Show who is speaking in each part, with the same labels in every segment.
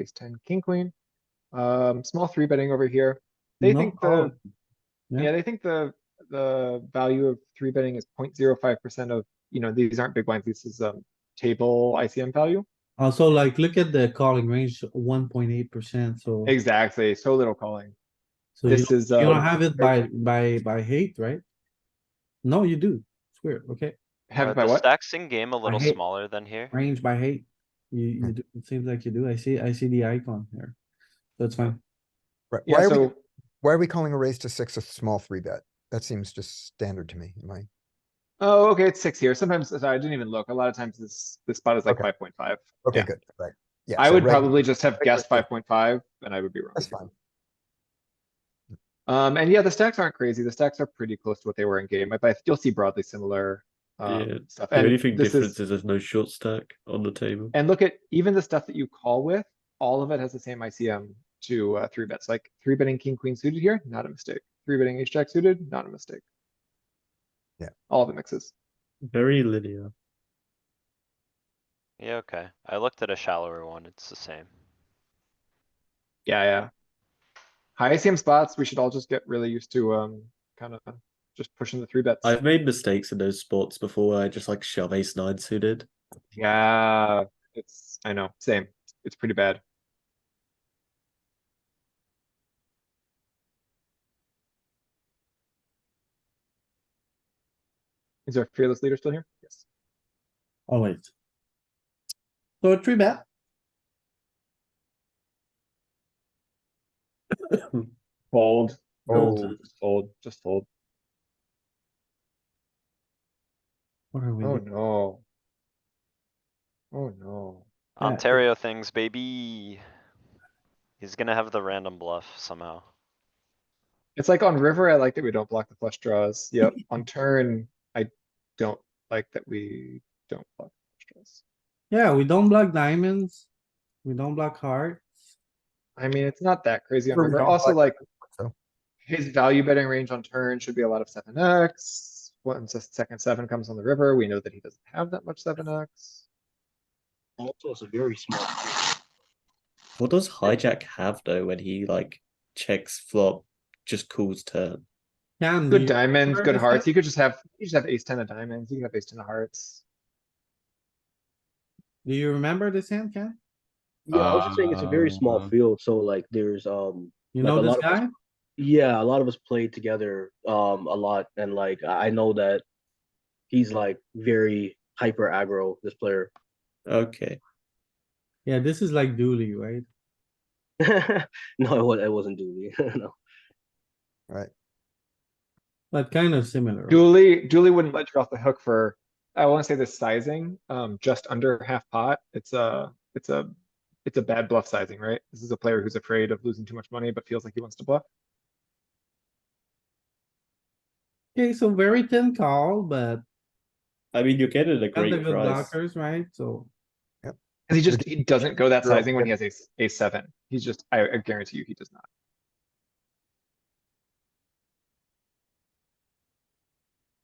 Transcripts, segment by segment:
Speaker 1: ace ten, king, queen. Um, small three betting over here. They
Speaker 2: No,
Speaker 1: think
Speaker 2: oh,
Speaker 1: the,
Speaker 2: yeah.
Speaker 1: yeah, they think the, the value of three betting is 0.05 percent of, you know, these aren't big blinds. This is, um, table ICM value.
Speaker 2: Also, Uh, like, look at the calling range, one point eight percent, so.
Speaker 1: Exactly. So little calling.
Speaker 2: so you
Speaker 1: This
Speaker 2: don't-
Speaker 1: is,
Speaker 2: You don't
Speaker 1: uh,
Speaker 2: have it by, by, by hate, right? No, you do. It's weird, okay?
Speaker 1: have
Speaker 3: Uh,
Speaker 1: it by
Speaker 3: the
Speaker 1: what?
Speaker 3: Stacks in game a little
Speaker 2: hate-
Speaker 3: smaller than here.
Speaker 2: Range by hate. You, you, do- it seems like you do. I see, I see the icon here. That's fine.
Speaker 4: Right, why
Speaker 1: Yeah,
Speaker 4: are we,
Speaker 1: so
Speaker 4: why are we calling a raise to six a small three bet? That seems just standard to me, am I?
Speaker 1: Oh, okay, it's six here. Sometimes, sorry, I didn't even look. A lot of times this, this spot is like
Speaker 4: Okay.
Speaker 1: five point five.
Speaker 4: Okay,
Speaker 1: Yeah.
Speaker 4: good, right. Yeah,
Speaker 1: I
Speaker 4: so
Speaker 1: would
Speaker 4: reg-
Speaker 1: probably just have guessed
Speaker 4: regular
Speaker 1: five point five and I would be wrong.
Speaker 4: That's fine.
Speaker 1: Um, and yeah, the stacks aren't crazy. The stacks are pretty close to what they were in game, but I- you'll see broadly similar,
Speaker 5: Yeah.
Speaker 1: um, stuff.
Speaker 5: The
Speaker 1: And
Speaker 5: only thing
Speaker 1: this
Speaker 5: difference
Speaker 1: is,
Speaker 5: is, there's no short stack on the table.
Speaker 1: and look at even the stuff that you call with, all of it has the same ICM to, uh, three bets, like three betting king, queen suited here, not a mistake. Three betting ace jack suited, not a mistake.
Speaker 4: Yeah.
Speaker 1: All of it mixes.
Speaker 5: Very linear.
Speaker 3: Yeah, okay. I looked at a shallower one. It's the same.
Speaker 1: Yeah, yeah. High ICM spots, we should all just get really used to, um, kind of just pushing the three bets.
Speaker 5: I've made mistakes in those spots before where I just like shove ace nine suited.
Speaker 1: Yeah, it's, I know, same. It's pretty bad. Is our fearless leader still here? Yes.
Speaker 2: Always. Oh, So a three bet,
Speaker 1: Fold. No,
Speaker 4: Fold.
Speaker 1: just Fold, just fold.
Speaker 2: what are we?
Speaker 1: Oh,
Speaker 2: doing?
Speaker 1: no. Oh, no.
Speaker 2: Yeah.
Speaker 3: Ontario things, baby. He's gonna have the random bluff somehow.
Speaker 1: It's like on river, I like that we don't block the flush draws. Yep, on turn, I don't like that we don't block the flush draws.
Speaker 2: Yeah, we don't block diamonds. We don't block hearts.
Speaker 1: I mean, it's not that crazy on
Speaker 4: Sure, we
Speaker 1: river.
Speaker 4: don't
Speaker 1: Also,
Speaker 4: block-
Speaker 1: like,
Speaker 4: So,
Speaker 1: His value betting range on turn should be a lot of seven X. Once a second seven comes on the river, we know that he doesn't have that much seven X.
Speaker 6: That was a very small.
Speaker 5: What does hijack have though when he like checks flop, just calls turn?
Speaker 2: Can do
Speaker 1: Good
Speaker 2: you-
Speaker 1: diamonds,
Speaker 2: prefer
Speaker 1: good
Speaker 2: this
Speaker 1: hearts.
Speaker 2: guy?
Speaker 1: You could just have, you just have ace ten of diamonds. You can have ace ten of hearts.
Speaker 2: do you remember this hand, Ken?
Speaker 6: Yeah, I was just saying it's a very small field, so like there's um
Speaker 2: You
Speaker 6: Like
Speaker 2: know
Speaker 6: a
Speaker 2: this
Speaker 6: lot of us-
Speaker 2: guy?
Speaker 6: yeah, a lot of us played together um a lot and like I I know that he's like very hyper aggro, this player.
Speaker 5: Okay.
Speaker 2: Yeah, this is like Dooley, right?
Speaker 6: no, it was it wasn't Dooley. no.
Speaker 2: But kind of similar. right?
Speaker 1: Dooley, Dooley wouldn't let you off the hook for, I wanna say this sizing, um, just under half pot. It's a, it's a, it's a bad bluff sizing, right? This is a player who's afraid of losing too much money, but feels like he wants to bluff.
Speaker 2: Okay, so very thin call, but
Speaker 5: I mean, you're getting a
Speaker 2: got the
Speaker 5: great
Speaker 2: good
Speaker 5: price.
Speaker 2: blockers, right? So,
Speaker 1: Cause he just, he doesn't go that
Speaker 4: Girl.
Speaker 1: sizing when he has ace, ace seven. He's just, I, I guarantee you, he does not.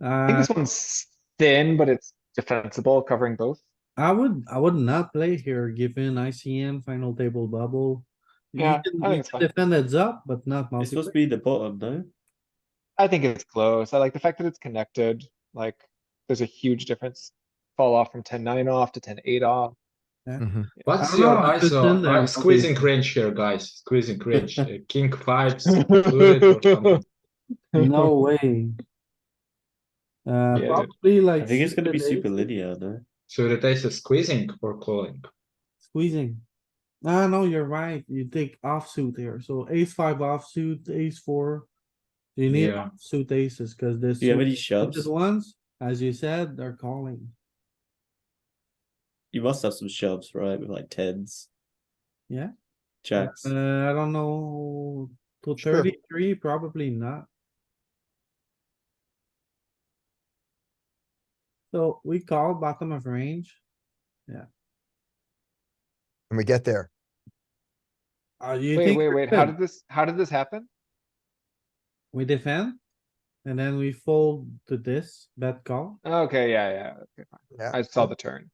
Speaker 1: I think
Speaker 2: uh,
Speaker 1: this one's thin, but it's defensible, covering both.
Speaker 2: I would, I would not play here, given ICM final table bubble. You
Speaker 1: Yeah,
Speaker 2: can-
Speaker 1: I think
Speaker 2: you
Speaker 1: it's
Speaker 2: can
Speaker 1: fine.
Speaker 2: Defend heads up, but not
Speaker 5: It's supposed to
Speaker 2: multi.
Speaker 5: be the bottom, no?
Speaker 1: I think it's close. I like the fact that it's connected, like, there's a huge difference. Fall off from 10-9 off to 10-8 off. Mm-hmm.
Speaker 4: mhm.
Speaker 2: I
Speaker 7: What's
Speaker 2: don't
Speaker 7: your
Speaker 2: know, I'm just in
Speaker 7: ISO?
Speaker 2: there.
Speaker 7: I'm squeezing cringe here, guys. Squeezing cringe. Uh, King fives. suited or something.
Speaker 2: No way. Uh,
Speaker 1: dude.
Speaker 2: probably like.
Speaker 5: I think it's gonna be
Speaker 2: suited
Speaker 5: super
Speaker 2: aces,
Speaker 5: linear, no?
Speaker 7: So the taste is squeezing or calling.
Speaker 2: Squeezing. Ah, no, you're right. You take offsuit here. So ace five offsuit, ace four. You need
Speaker 7: Yeah.
Speaker 2: suit aces, cause this.
Speaker 5: Do you have any shoves?
Speaker 2: Just ones, as you said, they're calling.
Speaker 5: You must have some shoves, right? With like tens.
Speaker 2: Yeah.
Speaker 5: Jacks.
Speaker 2: Uh, I don't know, to
Speaker 4: Sure.
Speaker 2: thirty-three, probably not. So we call bottom of range.
Speaker 4: And we get there.
Speaker 2: Uh, you
Speaker 1: Wait,
Speaker 2: think
Speaker 1: wait,
Speaker 2: we're
Speaker 1: wait, how
Speaker 2: good?
Speaker 1: did this, how did this happen?
Speaker 2: We defend? And then we fold to this, bet call,
Speaker 1: Okay, yeah, yeah, okay, fine.
Speaker 4: Yeah.
Speaker 1: I saw the turn.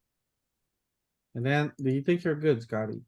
Speaker 2: and then, do you think you're good, Scotty?